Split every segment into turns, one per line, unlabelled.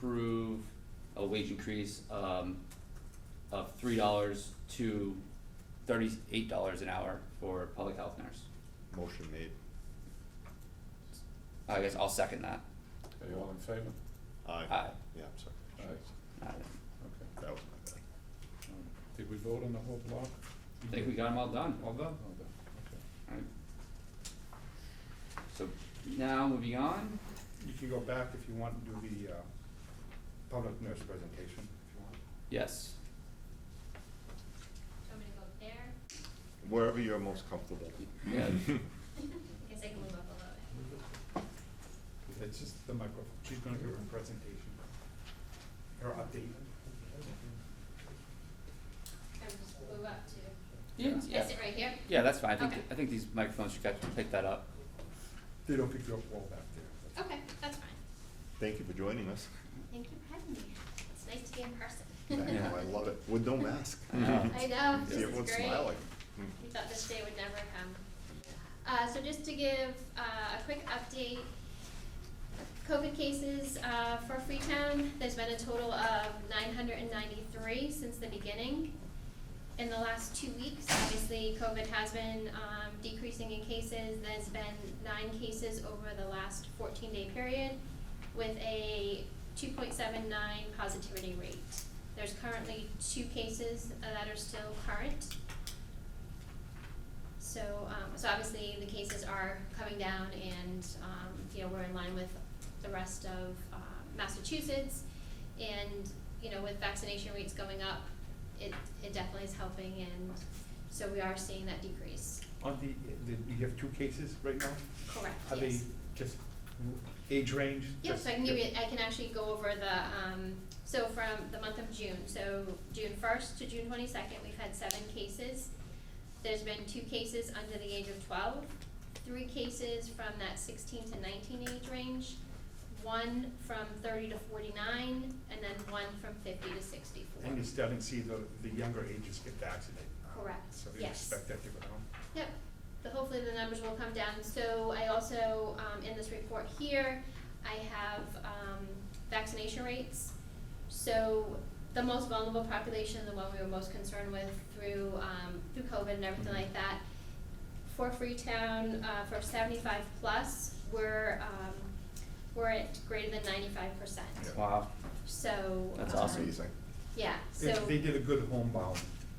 approve a wage increase, um, of three dollars to thirty-eight dollars an hour for public health nurse.
Motion made.
I guess I'll second that.
Are you all in favor?
Aye.
Aye.
Yeah, I'm sorry.
Aye,
I
okay.
That was my bad.
Um, Did we vote on the whole block?
think we got them all done.
All done, all done,
Alright. So now moving on,
You can go back if you want and do the uh, public nurse presentation if you want.
yes,
Do you want me to go there?
Wherever you're most comfortable.
yeah,
I guess I can move up a little bit.
It's just the microphone. She's gonna give her presentation, her update.
Or just move up to,
yeah,
I
yeah,
sit right here?
yeah, that's fine, I think,
Okay.
I think these microphones should catch, pick that up.
They don't pick you up well back there.
Okay, that's fine.
Thank you for joining us.
Thank you for having me. It's nice to be in person.
Thank you, I love it, with no mask.
I know.
I know, this
See
is great.
everyone smiling. Mm.
We thought this day would never come. Uh, so just to give, uh, a quick update, COVID cases, uh, for Freetown, there's been a total of nine hundred and ninety-three since the beginning. In the last two weeks, obviously, COVID has been, um, decreasing in cases, there's been nine cases over the last fourteen-day period with a two point seven nine positivity rate. There's currently two cases uh, that are still current, so, um, so obviously the cases are coming down and, um, you know, we're in line with the rest of, uh, Massachusetts. And, you know, with vaccination rates going up, it, it definitely is helping and so we are seeing that decrease.
On the, the- you have two cases right now?
Correct,
Are they
yes.
just age range?
Yeah,
Just-
so I can give you, I can actually go over the, um, so from the month of June, so June first to June twenty-second, we've had seven cases. There's been two cases under the age of twelve, three cases from that sixteen to nineteen age range, one from thirty to forty-nine, and then one from fifty to sixty-four.
And you're starting to see the, the younger ages get vaccinated. now.
Correct,
So you
yes.
expect that to go down?
Yep, the, hopefully the numbers will come down, so I also, um, in this report here, I have, um, vaccination rates. So, the most vulnerable population, the one we were most concerned with through, um, through COVID and everything like that, for Freetown, uh, for seventy-five plus, we're, um, we're at greater than ninety-five percent,
Yeah.
Wow,
so.
That's
um,
awesome.
Amazing.
Yeah,
They-
so.
They did a good homebound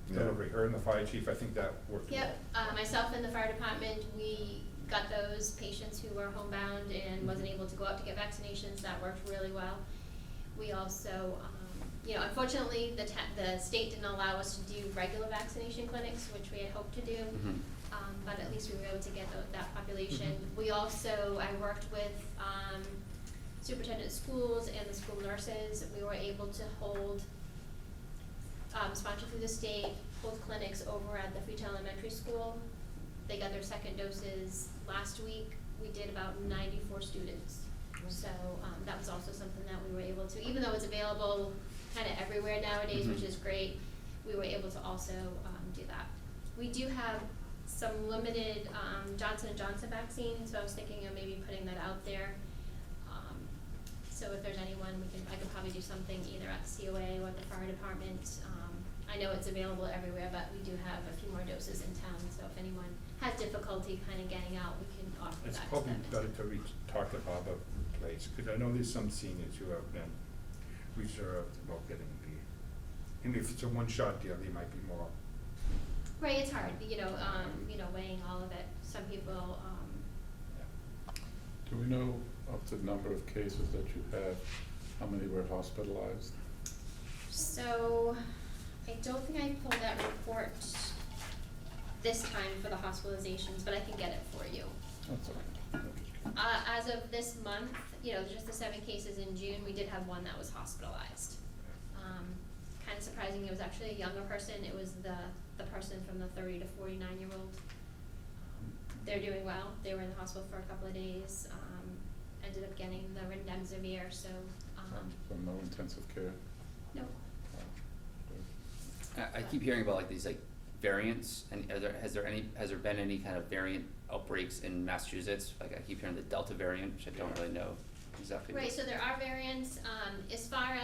Yeah.
delivery, her and the fire chief, I think that worked well.
Yep, uh, myself and the fire department, we got those patients who were homebound and wasn't able to go out to get vaccinations, that worked really well. We also, um, you know, unfortunately, the ta- the state didn't allow us to do regular vaccination clinics, which we had hoped to do.
Mhm.
Um, but at least we were able to get tho- that population.
Mhm.
We also, I worked with, um, superintendent of schools and the school nurses, we were able to hold um, sponsored through the state, hold clinics over at the Freetown Elementary School. They got their second doses last week. We did about ninety-four students. So, um, that was also something that we were able to, even though it's available kind of everywhere nowadays, which
Mhm.
is great, we were able to also, um, do that. We do have some limited, um, Johnson and Johnson vaccine, so I was thinking of maybe putting that out there. Um, so if there's anyone, we can, I could probably do something either at COA or at the fire department. Um, I know it's available everywhere, but we do have a few more doses in town, so if anyone has difficulty kind of getting out, we can offer that to them.
It's probably
as
better to reach, talk to Bob about the place, because I know there's some seniors who have been reserved about getting the, and if it's a one-shot deal, they might be more,
Right, it's hard, you know, um, you know, weighing all of it, some people, um,
Do we know of the number of cases that you have, how many were hospitalized?
so, I don't think I pulled that report this time for the hospitalizations, but I can get it for you.
That's okay.
Uh, as of this month, you know, just the seven cases in June, we did have one that was hospitalized. Um, kind of surprising, it was actually a younger person, it was the, the person from the thirty to forty-nine year old. They're doing well, they were in the hospital for a couple of days, um, ended up getting the remdesivir, so, um,
So no intensive care? Uh,
no.
Wow. Good.
I, I keep hearing about like these like variants, and are there, has there any, has there been any kind of variant outbreaks in Massachusetts? Like I keep hearing the Delta variant, which I don't really know exactly. what-
Right, so there are variants, um, as